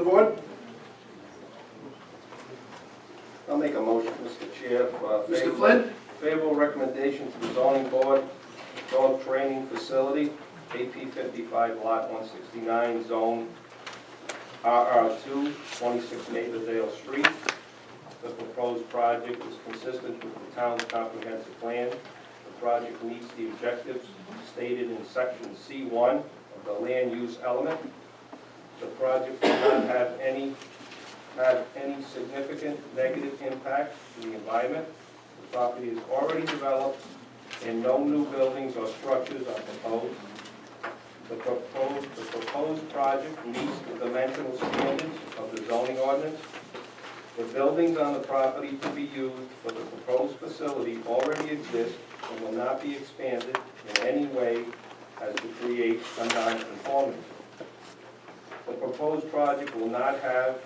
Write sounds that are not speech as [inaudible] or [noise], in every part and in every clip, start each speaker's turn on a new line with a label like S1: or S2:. S1: board?
S2: I'll make a motion, Mr. Chair, for a
S1: Mr.
S2: favorable-
S1: Flynn?
S2: Favorable recommendation to the zoning board, dog training facility, AP 55, Lot 169, Zone RR2, 26 Nathaniel Street. The proposed project is consistent with the town's comprehensive plan. The project meets the objectives stated in Section C1 of the land use element. The project will not have any, have any significant negative impact to the environment. The property is already developed, and no new buildings or structures are proposed. The proposed, the proposed project meets the dimensional standards of the zoning ordinance. The buildings on the property to be used for the proposed facility already exist and will not be expanded in any way as to create a non-conformity. The proposed project will not have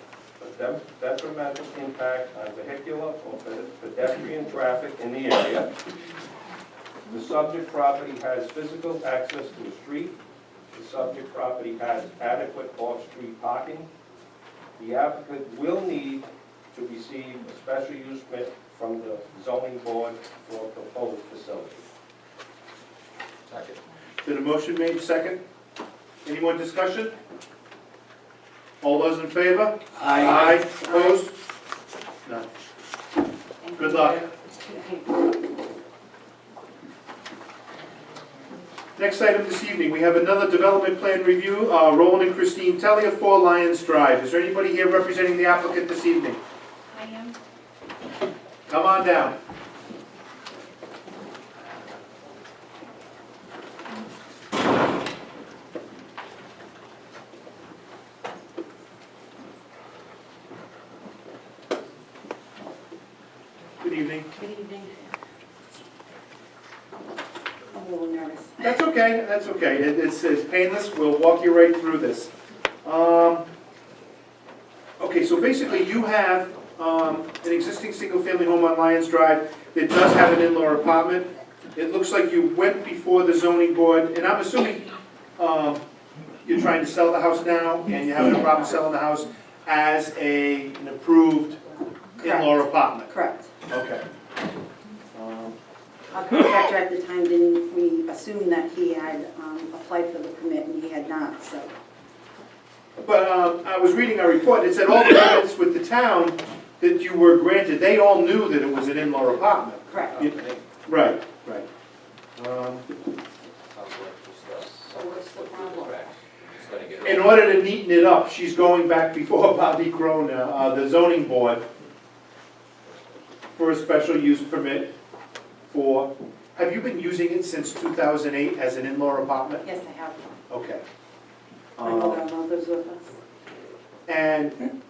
S2: a de- detrimental impact on vehicular or pe- pedestrian traffic in the area. The subject property has physical access to a street. The subject property has adequate off-street parking. The applicant will need to receive a special use permit from the zoning board for a proposed facility.
S3: Second.
S1: Been a motion made, second. Any more discussion? All those in favor? Aye. Opposed? None. Good luck. Next item this evening, we have another development plan review, uh, Roland and Christine Telly of Four Lions Drive. Is there anybody here representing the applicant this evening?
S4: I am.
S1: Come on down. Good evening.
S4: Good evening. I'm a little nervous.
S1: That's okay, that's okay. It- It's, it's painless, we'll walk you right through this. Um, Okay, so basically you have um, an existing single-family home on Lions Drive that does have an in-law apartment. It looks like you went before the zoning board, and I'm assuming um, you're trying to sell the house now, and you're having a problem selling the house as a, an approved in-law apartment.
S5: Correct.
S1: Okay. Um,
S5: Our contractor at the time didn't, we assumed that he had um, applied for the permit and he had not, so.
S1: But um, I was reading a report, it said all the permits with the town that you were granted, they all knew that it was an in-law apartment.
S5: Correct.
S1: Yeah. Right, right. Um,
S3: Sounds like just us.
S4: So what's the problem?
S3: Just gotta
S1: [laughs]
S3: get
S1: In
S3: it.
S1: order to neaten it up, she's going back before [laughs] Bobby Crone, uh, the zoning board, for a special use permit for, have you been using it since 2008 as an in-law apartment?
S5: Yes, I have.
S1: Okay.
S5: My
S1: Um,
S5: mother-in-law lives with us.
S1: And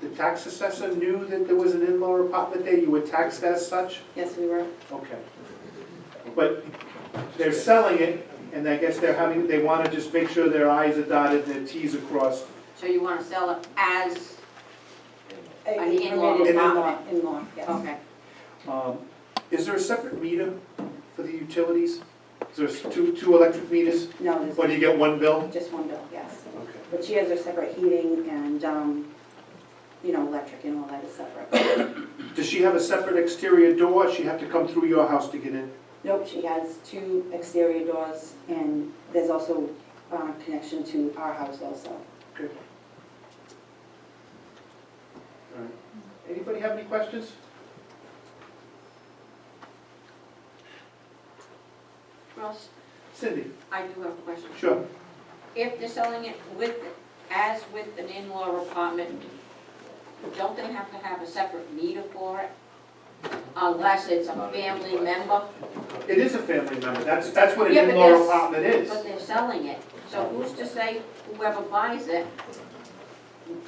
S1: the tax assessor knew that there was an in-law apartment there, you were taxed as such?
S5: Yes, we were.
S1: Okay. But they're selling it, and I guess they're having, they want to just make sure their i's are dotted and their t's are crossed.
S6: So you want to sell it as,
S5: An
S6: in-law
S5: permitted
S6: apartment.
S5: In-law, yes.
S6: okay.
S1: Um, Is there a separate meter for the utilities? Is there two, two electric meters,
S5: No, there's
S1: or do you get one bill?
S5: just one bill, yes.
S1: Okay.
S5: But she has her separate heating and, um, you know, electric and all that is separate.
S1: Does she have a separate exterior door, she have to come through your house to get in?
S5: Nope, she has two exterior doors and there's also uh, connection to our house also.
S1: Okay. All right. Anybody have any questions?
S6: Ross,
S1: Cindy?
S6: I do have a question.
S1: Sure.
S6: If they're selling it with, as with an in-law apartment, don't they have to have a separate meter for it? Unless it's a family member,
S1: It is a family member, that's, that's what an
S6: Yeah, but
S1: in-law
S6: there's-
S1: apartment is.
S6: but they're selling it. So who's to say whoever buys it,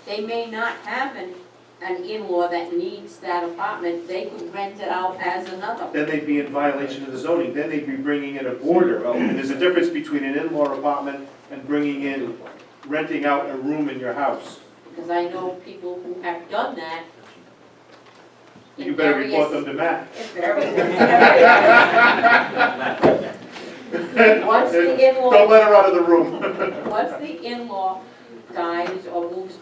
S6: they may not have an, an in-law that needs that apartment, they could rent it out as another.
S1: Then they'd be in violation of the zoning, then they'd be bringing in a boarder. And there's a difference between an in-law apartment and bringing in, renting out a room in your house.
S6: Because I know people who have done that. in
S1: You better
S6: various-
S1: report them to Matt.
S6: in
S1: [laughs]
S6: various- [laughs]
S1: [laughs]
S6: Once the
S1: Don't
S6: in-law,
S1: let her out of the room.
S6: once the in-law dies or moves